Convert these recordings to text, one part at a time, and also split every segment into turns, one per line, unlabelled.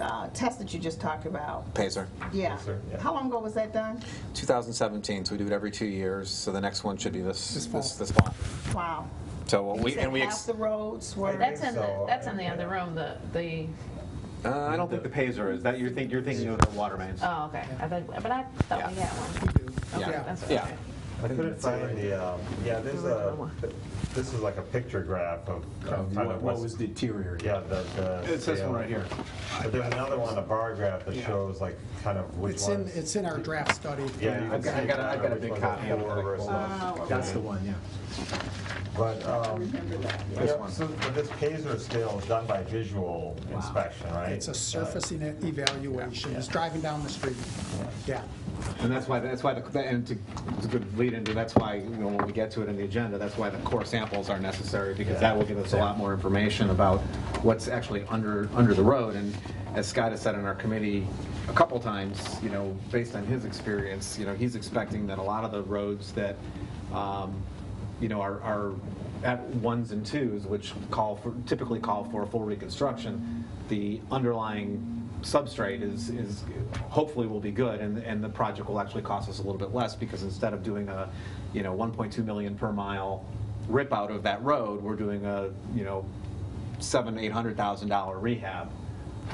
uh, test that you just talked about?
Pacer.
Yeah.
sir. Yeah.
How long ago was that done?
2017, so we do it every two years. So the next one should be this
This fall.
this, this fall.
Wow.
So what
uh,
And you
we and
said
we
half
ex-
the roads were.
That's in the,
So,
that's in the other room, the, the,
uh, I don't think the
Pazer is, that you're thinking, you're thinking of the water mains.
oh, okay, I think, but I thought we
Yeah.
had one. Okay,
Yeah.
that's
yeah.
okay.
I couldn't find the, um, yeah, there's a, this is like a picture graph of. of kind
What
of
what
what's-
was deteriorating?
Yeah, the, the.
It's this one
yeah.
right here.
But there's another one, a bar graph that
Yeah.
shows like kind of which
It's in,
ones.
it's in our draft study.
Yeah, you
I've
can
got-
see
I've got a- I've got a
which
big
ones are
copy of it
for
that I
versus-
Oh,
That's the one, yeah.
But, um,
Remember that. yeah.
yeah, so but this Pazer scale is done by visual inspection, right?
It's a surfacing e- evaluation, it's driving down the street. Yeah,
And that's why, that's why, the and to, it's a good lead into, that's why, you know, when we get to it in the agenda, that's why the core samples are necessary, because that will give us a lot more information about what's actually under, under the road. And as Scott has said in our committee a couple times, you know, based on his experience, you know, he's expecting that a lot of the roads that, um, you know, are, are at ones and twos, which call for, typically call for a full reconstruction, the underlying substrate is, is hopefully will be good, and, and the project will actually cost us a little bit less, because instead of doing a, you know, 1.2 million per mile rip out of that road, we're doing a, you know, seven, eight hundred thousand dollar rehab,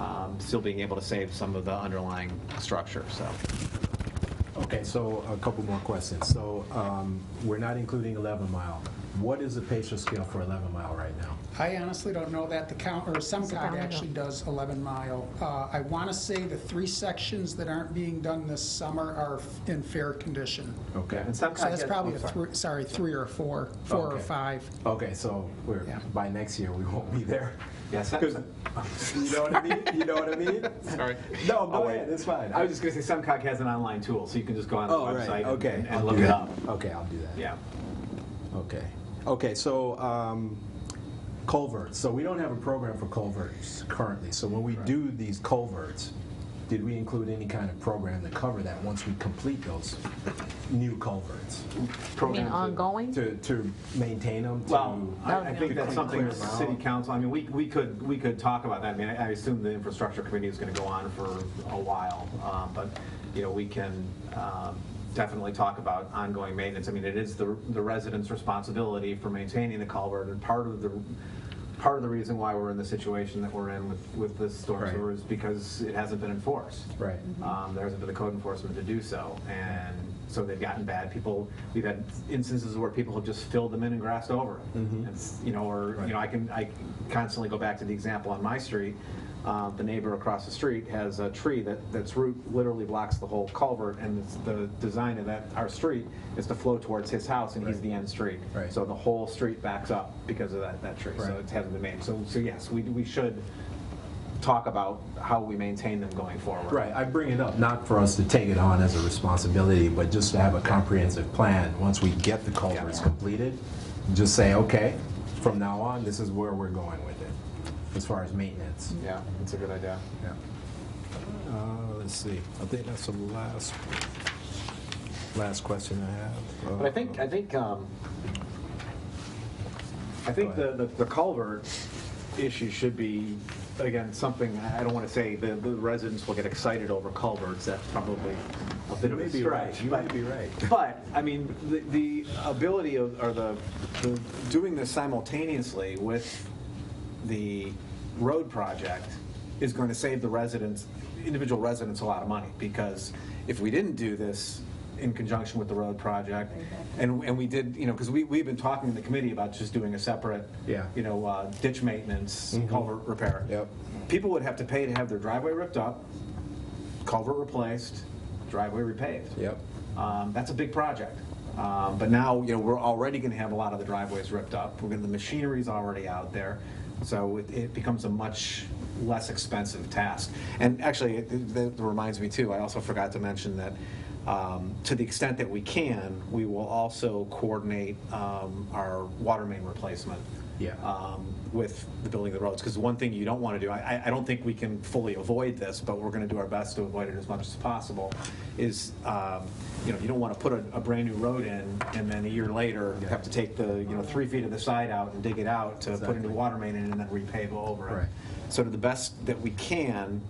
um, still being able to save some of the underlying structure, so.
okay,
So a couple more questions. So um, we're not including 11 mile. What is the patient scale for 11 mile right now?
I honestly don't know that the count, or SEMCOG actually does 11 mile. Uh, I want to say the three sections that aren't being done this summer are f- in fair condition.
Okay.
And some
So
kind
that's
of-
probably,
I'm
a
sorry.
three- sorry, three or four, four or
Okay.
five.
Okay, so we're,
Yeah.
by next year, we won't be there.
Yeah, some-
Because- You know what I mean? You know what I mean?
Sorry.
No,
I'll
go
wait.
ahead, it's fine.
I was just gonna say, Semcog has an online tool, so you can just go on the
Oh, right,
website
okay.
and- and
I'll
look
do
it
that.
up.
Okay, I'll do that.
Yeah.
Okay. Okay, so um, culverts. So we don't have a program for culverts currently. So when we do these culverts, did we include any kind of program to cover that once we complete those new culverts?
You mean ongoing?
To, to maintain them? to-
Well, I
That would
I
be
think
a
that's
good
something
point.
the city council, I mean, we, we could, we could talk about that. I mean, I I assume the infrastructure committee is going to go on for a while. um, But, you know, we can um, definitely talk about ongoing maintenance. I mean, it is the the residents' responsibility for maintaining the culvert. And part of the, part of the reason why we're in the situation that we're in with, with this storm
Right.
sewer is because it hasn't been enforced.
Right.
Um, There hasn't been the code enforcement to do so, and so they've gotten bad. People, we've had instances where people have just filled them in and grassed over it.
Mm-hmm.
It's, you know, or, you know, I can, I constantly go back to the example on my street. Uh, The neighbor across the street has a tree that, that's root literally blocks the whole culvert, and it's the design of that, our street is to flow towards his house, and he's the end street.
Right.
So the whole street backs up because of that, that tree, so
Right.
it hasn't been made. So, so yes, we, we should talk about how we maintain them going forward.
Right, I bring it up, not for us to take it on as a responsibility, but just to have a comprehensive plan, once we get the culverts
Yeah.
completed, just say, okay, from now on, this is where we're going with it, as far as maintenance.
Yeah, that's a good idea.
Yeah. Uh, let's see, I think that's the last, last question I have.
But I think, I think, um, I think
Go
the,
ahead.
the the culvert issue should be, again, something, I don't want to say the, the residents will get excited over culverts, that's probably a bit of a
be right.
stretch.
You
but-
may be right.
But, I mean, the, the ability of, or the, the, doing this simultaneously with the road project is going to save the residents, individual residents, a lot of money, because if we didn't do this in conjunction with the road project, and, and we did, you know, because we, we've been talking in the committee about just doing a separate,
Yeah. Mm-hmm.
you know, uh, ditch maintenance, culvert repair.
Yep.
People would have to pay to have their driveway ripped up, culvert replaced, driveway repaved.
Yep.
Um, That's a big project. Um, But now, you know, we're already going to have a lot of the driveways ripped up. We're going, the machinery's already out there. So it- it becomes a much less expensive task. And actually, it- it- that reminds me too, I also forgot to mention that um, to the extent that we can, we will also coordinate um, our water main replacement.
Yeah.
um, With the building of the roads. Because one thing you don't want to do, I, I- I don't think we can fully avoid this, but we're going to do our best to avoid it as much as possible, is, um, you know, you don't want to put a, a brand-new road in and then a year later have to take the, you know, three feet of the side out and dig it out to put a new
Exactly.
water main in and then repave over it.
Right.
So to the best that we can,